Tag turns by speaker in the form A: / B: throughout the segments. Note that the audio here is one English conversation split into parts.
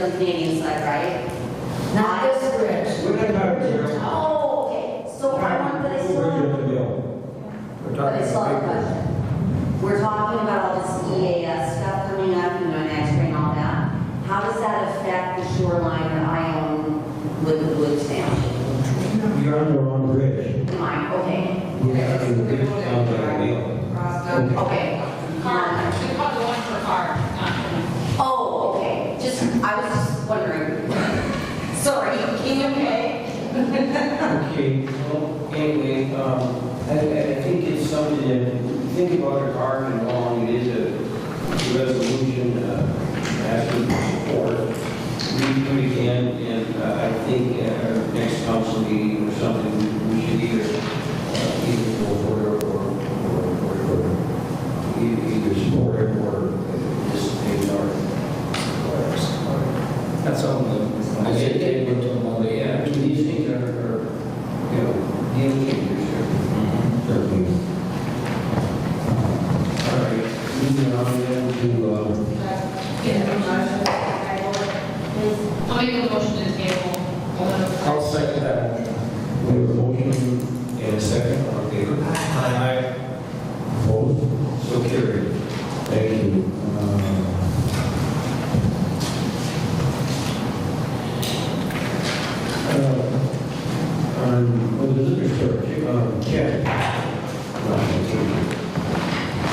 A: the Canadian side, right?
B: Not this bridge.
C: We're not talking about.
A: Oh, okay, so I want, but I still
C: We're
A: want,
C: just a bill. We're
A: but
C: talking
A: I still have a
C: about. papers.
A: question. We're talking about all this EAS stuff coming up, you know, and X-ray and all that. How does that affect the shoreline that I own with the Blue Township?
C: You're on the wrong bridge.
A: Mine, okay,
C: You're on the bridge down by the wheel.
A: okay.
D: Car, we call the one for car, not.
A: Oh, okay, just, I was just wondering.
D: Sorry, can you pay?
E: Okay, well, anyway, um, I, I think it's something that, think about it hard and long, it is a resolution, uh, asking for support. We do it again, and uh, I think at our next council meeting or something, we should either, uh, either go for it or, or, or, or, either either support it or just ignore it. That's all. I said, they were talking about, the- yeah, I mean, these things are, are, you know, game changers here. Mm-hmm. Certainly. All right, moving on then to, um,
D: Get a motion to table. I'll make a motion to table.
E: I'll second that.
C: We have a motion
E: In a second, all in favor? Aye.
C: opposed.
E: So carried.
C: Thank you. Uh, uh, On, well, the liquor store, um, check. Uh, okay.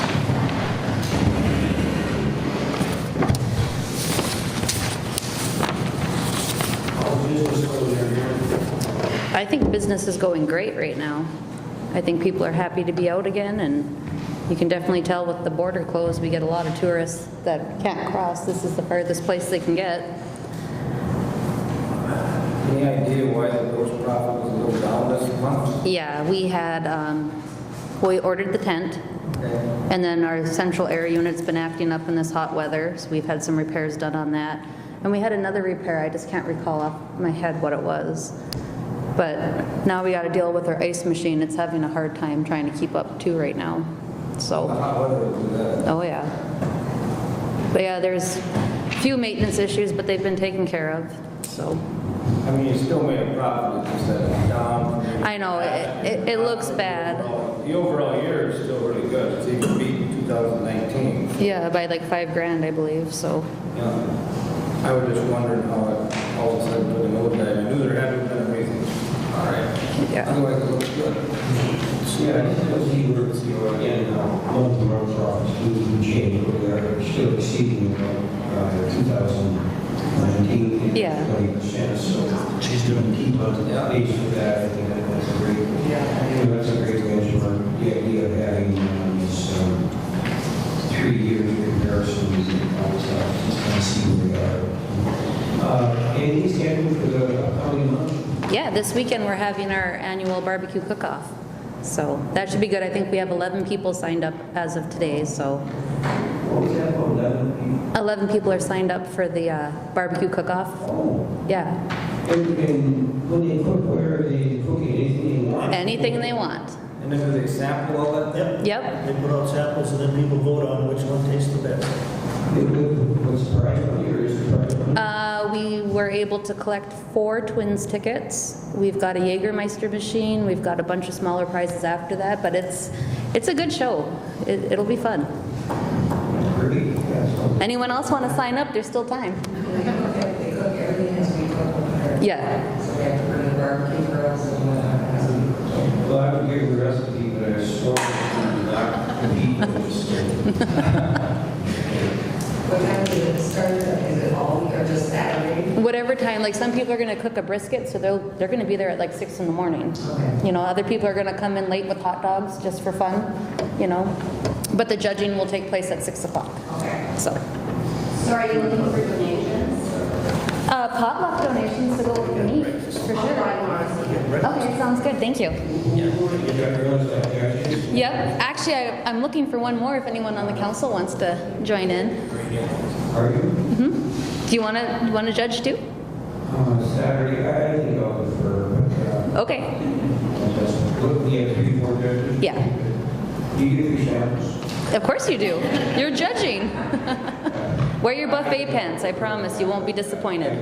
E: All business closure here.
F: I think business is going great right now. I think people are happy to be out again, and you can definitely tell with the border closed, we get a lot of tourists that can't cross. This is the furthest place they can get.
G: Any idea why the gross profit was a little down this month?
F: Yeah, we had, um, we ordered the tent,
G: Okay.
F: and then our central air unit's been acting up in this hot weather, so we've had some repairs done on that. And we had another repair, I just can't recall off my head what it was. But now we gotta deal with our ice machine, it's having a hard time trying to keep up too right now, so.
G: The hot weather will do that.
F: Oh, yeah. But yeah, there's a few maintenance issues, but they've been taken care of, so.
G: I mean, you still made a profit, it's just that down.
F: I know, it- it- it looks bad.
G: The overall year is still really good, it's even beating 2019.
F: Yeah, by like five grand, I believe, so.
G: Yeah. I was just wondering how it all of a sudden put a note that I knew there hadn't been a reason. All right.
F: Yeah.
G: Otherwise, it looks good.
E: Yeah, because he works, you know, again, uh, one of the runs off, two change, we are still exceeding uh, 2019.
F: Yeah.
E: 20%, so she's doing keep on the pace with that, I think that- that's a great, you know, that's a great benchmark. The idea of having um, this um, three-year comparisons and all this stuff, just kind of see where we are. Uh, And he's scheduled for the upcoming month.
F: Yeah, this weekend, we're having our annual barbecue cook-off, so that should be good. I think we have 11 people signed up as of today, so.
E: What was that, about 11 people?
F: 11 people are signed up for the uh, barbecue cook-off,
E: Oh.
F: yeah.
E: And, and when they cook, where are they cooking, anything they want?
F: Anything they want.
G: And then do they sample all that?
H: Yep.
F: Yep.
H: They put out samples and then people vote on which one tastes the best.
E: They cook, what's the price on here, is the price on?
F: Uh, We were able to collect four Twins tickets. We've got a Jägermeister machine, we've got a bunch of smaller prizes after that, but it's, it's a good show. It- It'll be fun.
E: Pretty, that's all.
F: Anyone else want to sign up? There's still time. Yeah,
A: uh,
E: Well, I would give the recipe, but I swore I would not compete with this.
I: What time does it start? Is it all week or just Saturday?
F: whatever time, like some people are going to cook a brisket, so they'll, they're going to be there at like six in the morning. You know, other people are going to come in late with hot dogs just for fun, you know? But the judging will take place at six o'clock,
I: Okay.
F: so.
A: So are you looking for donations?
F: Uh, Potluck donations to go with the meat, for
A: I'll
F: sure.
A: try tomorrow.
F: Okay, sounds good, thank you.
E: You got girls like that?
F: Yep, actually, I- I'm looking for one more if anyone on the council wants to join in.
E: Are you?
F: Do you want to, you want to judge too?
E: Uh, Saturday, I I think I'll defer, but, uh,
F: Okay,
E: I'll just, look, we have three, four judges.
F: Yeah.
E: You give your samples.
F: of course you do. You're judging. Wear your buffet pants, I promise, you won't be disappointed.